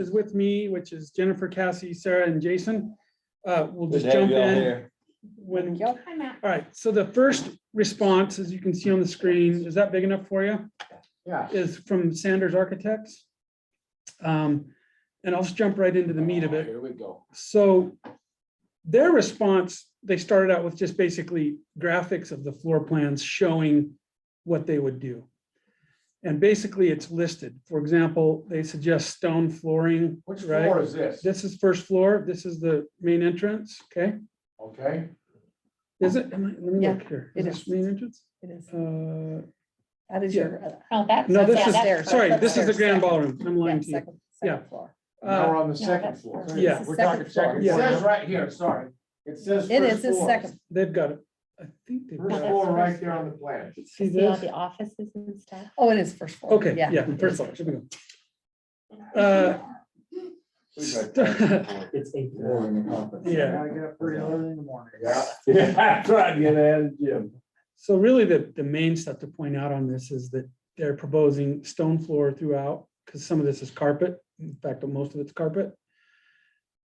is with me, which is Jennifer, Cassie, Sarah, and Jason. Uh, We'll Good just to have jump you all in here. when, all Yep. Hi, Matt. right, so the first response, as you can see on the screen, is that big enough for you? Yeah. Is from Sanders Architects. Um, And I'll just jump right into the meat of it. Here we go. So their response, they started out with just basically graphics of the floor plans showing what they would do. And basically, it's listed. For example, they suggest stone flooring, Which floor right? is this? This is first floor. This is the main entrance, okay? Okay, Is it? am I- Let me Yeah, look here. it Is this is. main entrance? It is. Uh, That is your. uh, Oh, that's. No, this yeah, is, that's upstairs. first. sorry, this is the Upstairs, grand second. ballroom. I'm yeah, lying to you. second- yeah. second floor. now Uh, we're on the No, second that's floor. first. Yeah. It's the We're talking second second. It floor. says right here, sorry. It says. It first is, it's floor. second. They've got it. I think they've First got No, that's it. floor right first. there on the plan. See See all this? the offices and stuff. Oh, it is first floor. Okay, yeah, first floor. Here we go. Uh, It's eight. Yeah. Gotta get up pretty early in the morning. Yeah. Yeah, that's right, you know, Jim. So really, the, the main stuff to point out on this is that they're proposing stone floor throughout, because some of this is carpet, in fact, most of it's carpet.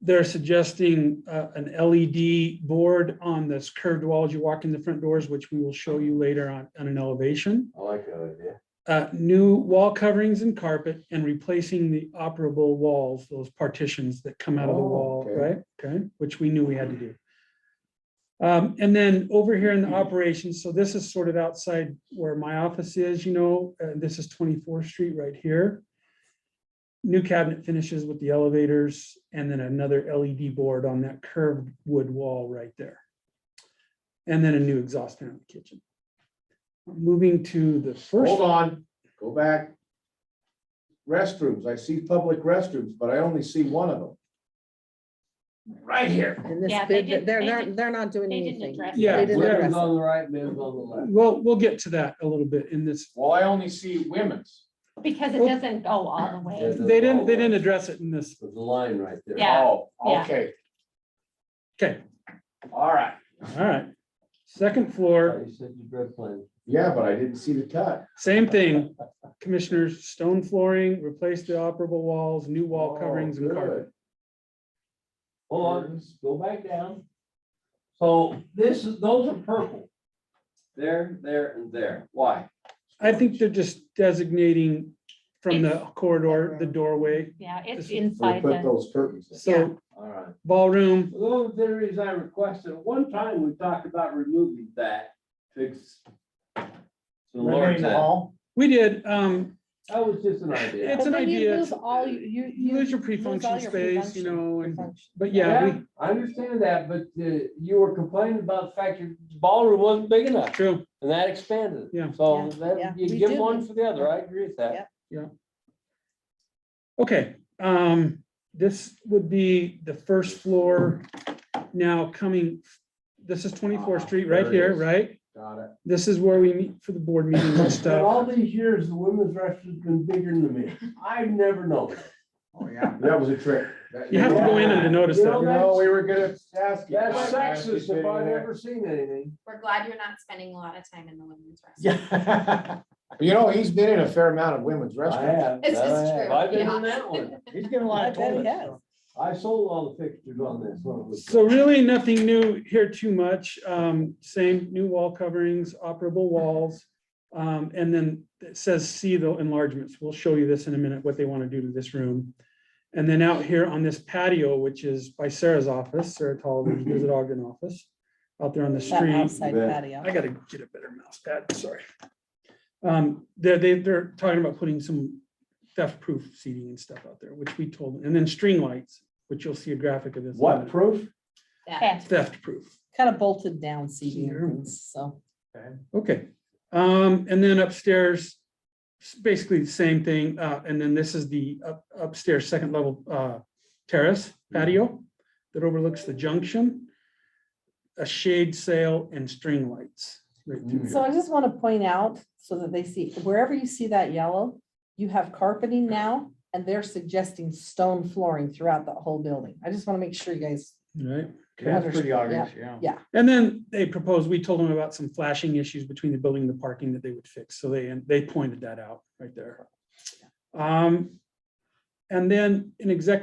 They're suggesting uh, an LED board on this curved wall as you walk in the front doors, which we will show you later on, on an elevation. I like that idea. Uh, New wall coverings and carpet and replacing the operable walls, those partitions that come out of the Oh, wall, okay. right? Okay, which we knew we had to do. Um, and then over here Mm-hmm. in the operations, so this is sort of outside where my office is, you know, uh, this is twenty-fourth street right here. New cabinet finishes with the elevators and then another LED board on that curved wood wall right there. And then a new exhaust fan in the kitchen. Moving to the first, Hold on, go back. Restrooms, I see public restrooms, but I only see one of them. Right here. And this Yeah, they bid, didn't- they're, they they're, didn't- they're not doing they didn't anything. address Yeah, They didn't yeah. address it. on the right, men's on the left. well, we'll get to that a little bit in this. Well, I only see women's. Because it Well- doesn't go all the way. Yeah. They didn't, they didn't address it in this. There's a line right there. Yeah. Oh, yeah. okay, Okay, all right. all right. Second floor. You said you read plan. Yeah, but I didn't see the cut. Same thing, commissioners, stone flooring, replace the operable walls, new wall Oh, coverings and carpet. Hold on, just go back down. So this is, those are purple. There, there, and there. Why? I think they're just designating from the corridor, the doorway, Yeah, it's This- We inside put the, those curtains in. so All right. ballroom, Those theories I requested, one time we talked about removing that fix. So Laura Remaining said, hall, we did, um, that was just an idea. It's But an then you idea. lose All you, you. you lose your lose all pre-function your space, you pre-function- know, and, pre-function. but yeah, we, I understand that, but uh, you were complaining about the fact your ballroom wasn't big enough true, and that expanded. Yeah. So Yeah, yeah. that, We you give do. one for the other. I agree with that. Yeah. okay, um, this would be the first floor now coming, this is twenty-fourth street right Ah, There it here, is. right? got it. This is where we meet for the board meetings and But stuff, all these years, the women's restroom's been bigger than the men's. I've never noticed. Oh, yeah. That was a trick. That- You have to go in and notice You that. know, we that's- were gonna ask. you. That's I asked you sexist if to I've do ever seen anything. We're glad you're not spending a lot of time in the women's restroom. that. You know, he's been in a fair amount of women's restaurants. This that I is have. true, I've been in yeah. that one. He's getting a I bet it has. I sold all the fixtures on this one. so really nothing new here too much, um, same new wall coverings, operable walls. Um, and then it says see the enlargements, we'll show you this in a minute, what they want to do to this room. And then out here on this patio, which is by Sarah's office, Sarah Tolliver's visit Ogden office, out there on the That street. Outside Yeah. patio. I gotta get a better mouse pad, sorry. Um, they're, they, they're talking about putting some theft-proof seating and stuff out there, which we told, them. and then string lights, which you'll see a graphic of this. in a What minute. proof? That- Theft-proof, Kind of bolted down seating and things, so. okay. Um, and then upstairs, s- basically the same thing, uh, and then this is the up- upstairs second level, uh, terrace patio that overlooks the junction. A shade sail and string lights. right through So here. I just want to point out so that they see, wherever you see that yellow, you have carpeting now and they're suggesting stone flooring throughout the whole building. I just want to make sure you guys. Right? That's pretty obvious, yeah. And then they proposed, we told them about some flashing issues between the building and the parking that they would fix, so they, and they pointed that out right there. Um, And then in executive